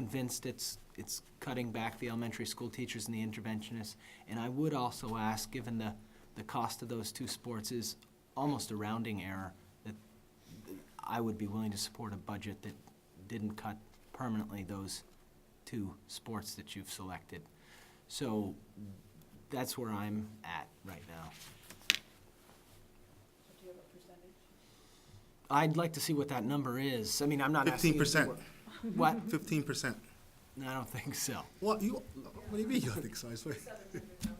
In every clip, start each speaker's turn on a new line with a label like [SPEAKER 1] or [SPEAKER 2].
[SPEAKER 1] convinced it's, it's cutting back the elementary school teachers and the interventionists. And I would also ask, given the, the cost of those two sports is almost a rounding error, that I would be willing to support a budget that didn't cut permanently those two sports that you've selected. So that's where I'm at right now.
[SPEAKER 2] Do you have a percentage?
[SPEAKER 1] I'd like to see what that number is. I mean, I'm not asking. you to
[SPEAKER 3] 15%.
[SPEAKER 1] do it. What?
[SPEAKER 3] Fifteen percent.
[SPEAKER 1] No, I don't think so.
[SPEAKER 3] What, you, what do you mean you don't think so? I swear.
[SPEAKER 2] Seven hundred thousand.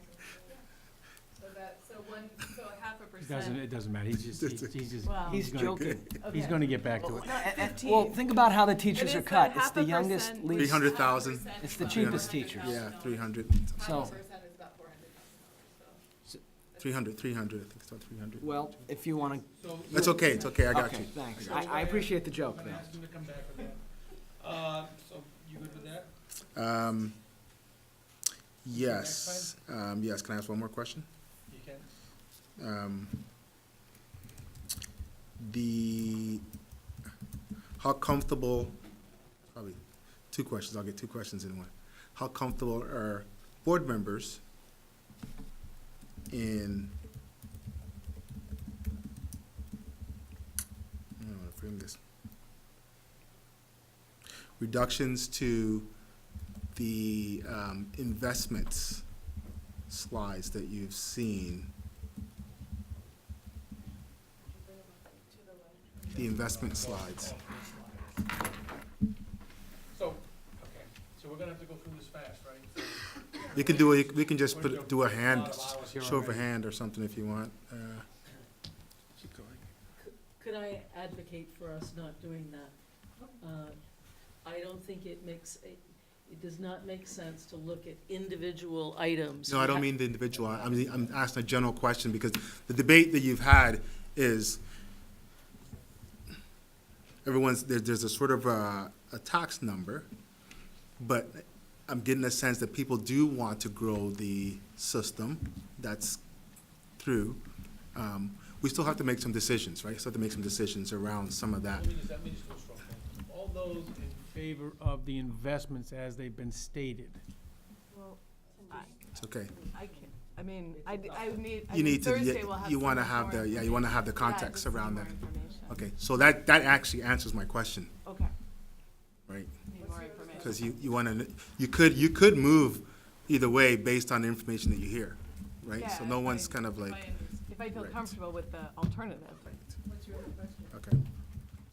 [SPEAKER 2] So that, so one, so a half a
[SPEAKER 4] It doesn't,
[SPEAKER 2] percent.
[SPEAKER 4] it doesn't matter, he's just, he's he's just.
[SPEAKER 5] Wow.
[SPEAKER 1] He's
[SPEAKER 4] gonna-
[SPEAKER 1] joking.
[SPEAKER 4] He's gonna get back to it.
[SPEAKER 1] Um, Well, think about how the teachers
[SPEAKER 2] It
[SPEAKER 1] are
[SPEAKER 2] is the
[SPEAKER 1] cut. It's
[SPEAKER 2] half
[SPEAKER 1] the
[SPEAKER 2] a
[SPEAKER 1] youngest,
[SPEAKER 2] percent.
[SPEAKER 1] least.
[SPEAKER 3] 300. 100,000.
[SPEAKER 1] It's the cheapest teachers.
[SPEAKER 3] Yeah, three hundred,
[SPEAKER 2] Half
[SPEAKER 1] So-
[SPEAKER 2] a percent is about four hundred thousand,
[SPEAKER 3] three hundred, three hundred, I think it's about three hundred.
[SPEAKER 1] Well, if you want to.
[SPEAKER 3] That's okay, it's okay, I got
[SPEAKER 1] Okay,
[SPEAKER 3] you.
[SPEAKER 1] thanks. I, I appreciate the joke there.
[SPEAKER 6] to come back with that. Uh, so you good with that?
[SPEAKER 3] Um, yes, um, yes, can I ask one more question?
[SPEAKER 6] You can.
[SPEAKER 3] Um, the, how comfortable, probably, two questions, I'll get two questions in one. How comfortable are board members in, I don't know how to frame this. Reductions to the, um, investments slides that you've seen. the investment slides.
[SPEAKER 6] So, okay, so we're gonna have to go through this fast, right?
[SPEAKER 3] You can do, a- we can just put, do a
[SPEAKER 6] Lot
[SPEAKER 3] hand,
[SPEAKER 6] of hours here
[SPEAKER 3] show of a
[SPEAKER 6] already.
[SPEAKER 3] hand or something if you want. Uh,
[SPEAKER 5] Could I advocate for us not doing that? Uh, I don't think it makes, a- it does not make sense to look at individual items.
[SPEAKER 3] No, I don't mean the individual, I- I'm, I'm asking a general question because the debate that you've had is everyone's, there's, there's a sort of a, a tax number, but I'm getting a sense that people do want to grow the system that's through. Um, We still have to make some decisions, right? Still have to make some decisions around some of that.
[SPEAKER 6] Let me just, let me just do a strong poll. All those in favor of the investments as they've been stated?
[SPEAKER 3] It's okay.
[SPEAKER 7] I can, I mean, I, d- I need, I
[SPEAKER 3] You
[SPEAKER 7] mean,
[SPEAKER 3] need to,
[SPEAKER 7] Thursday
[SPEAKER 3] you-
[SPEAKER 7] we'll have.
[SPEAKER 3] you
[SPEAKER 7] some
[SPEAKER 3] want to have
[SPEAKER 7] more
[SPEAKER 3] the, yeah,
[SPEAKER 7] info-
[SPEAKER 3] you want to have the
[SPEAKER 7] yeah,
[SPEAKER 3] context
[SPEAKER 7] just some
[SPEAKER 3] around
[SPEAKER 7] more
[SPEAKER 3] that.
[SPEAKER 7] information.
[SPEAKER 3] Okay, so that, that actually answers my question,
[SPEAKER 7] Okay,
[SPEAKER 3] right?
[SPEAKER 7] need more information.
[SPEAKER 3] Because you, you want to, you could, you could move either way based on the information that you hear, right? So
[SPEAKER 7] Yeah,
[SPEAKER 3] no
[SPEAKER 7] if
[SPEAKER 3] one's
[SPEAKER 7] I-
[SPEAKER 3] kind of like,
[SPEAKER 7] If I feel
[SPEAKER 3] Right.
[SPEAKER 7] comfortable with the alternative.
[SPEAKER 3] okay.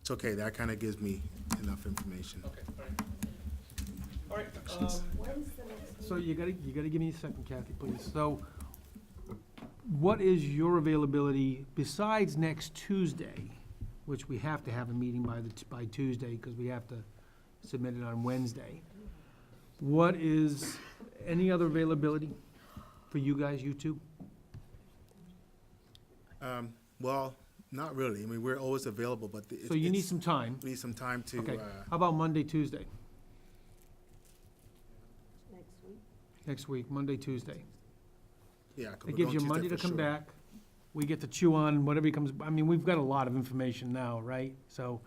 [SPEAKER 3] It's okay, that kind of gives me enough information.
[SPEAKER 6] Okay, all right. All right, um,
[SPEAKER 4] So you gotta, you gotta give me a second, Kathy, please. So what is your availability besides next Tuesday, which we have to have a meeting by the, by Tuesday, because we have to submit it on Wednesday? What is, any other availability for you guys, you two?
[SPEAKER 3] Um, well, not really, I mean, we're always available, but it-
[SPEAKER 4] So you need
[SPEAKER 3] it's-
[SPEAKER 4] some time.
[SPEAKER 3] We need some time to,
[SPEAKER 4] Okay,
[SPEAKER 3] uh,
[SPEAKER 4] how about Monday, Tuesday,
[SPEAKER 5] Next week?
[SPEAKER 4] next week, Monday, Tuesday?
[SPEAKER 3] yeah. 'cause we're
[SPEAKER 4] It gives
[SPEAKER 3] going
[SPEAKER 4] you
[SPEAKER 3] Tuesday
[SPEAKER 4] Monday to
[SPEAKER 3] for
[SPEAKER 4] come
[SPEAKER 3] sure.
[SPEAKER 4] back. We get to chew on whatever he comes, I mean, we've got a lot of information now, right? So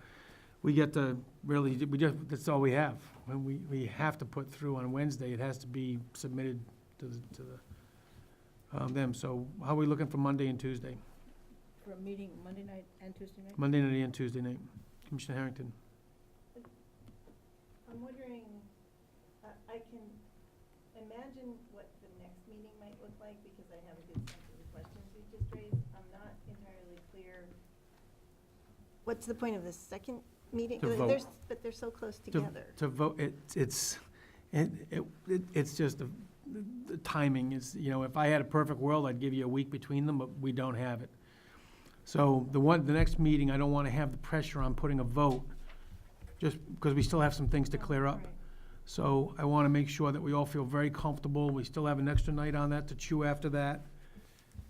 [SPEAKER 4] we get to really, we just, that's all we have. When we, we have to put through on Wednesday, it has to be submitted to the, to the, um, them. So how are we looking for Monday and Tuesday?
[SPEAKER 5] For a meeting Monday night and Tuesday night?
[SPEAKER 4] Monday night and Tuesday night? Commissioner Harrington?
[SPEAKER 8] I'm wondering, I I can imagine what the next meeting might look like because I have a good sense of the questions you just raised. I'm not entirely clear. What's the point of the second meeting?
[SPEAKER 4] To
[SPEAKER 8] They're-
[SPEAKER 4] vote.
[SPEAKER 8] they're s- But they're so close
[SPEAKER 4] to-
[SPEAKER 8] together.
[SPEAKER 4] To vote, it, it's, it, it, it- it's just, the, the timing is, you know, if I had a perfect world, I'd give you a week between them, but we don't have it. So the one, the next meeting, I don't wanna have the pressure on putting a vote, just because we still have some things to clear up. So I wanna make sure that we all feel very comfortable, we still have an extra night on that to chew after that.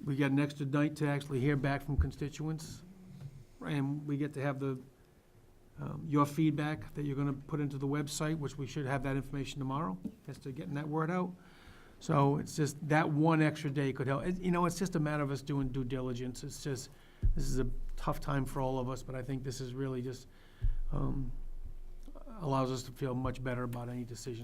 [SPEAKER 4] We got an extra night to actually hear back from constituents, and we get to have the, um, your feedback that you're gonna put into the website, which we should have that information tomorrow, as to getting that word out. So it's just, that one extra day could help. It- You know, it's just a matter of us doing due diligence. It's just, this is a tough time for all of us, but I think this is really just, um, allows us to feel much better about any decision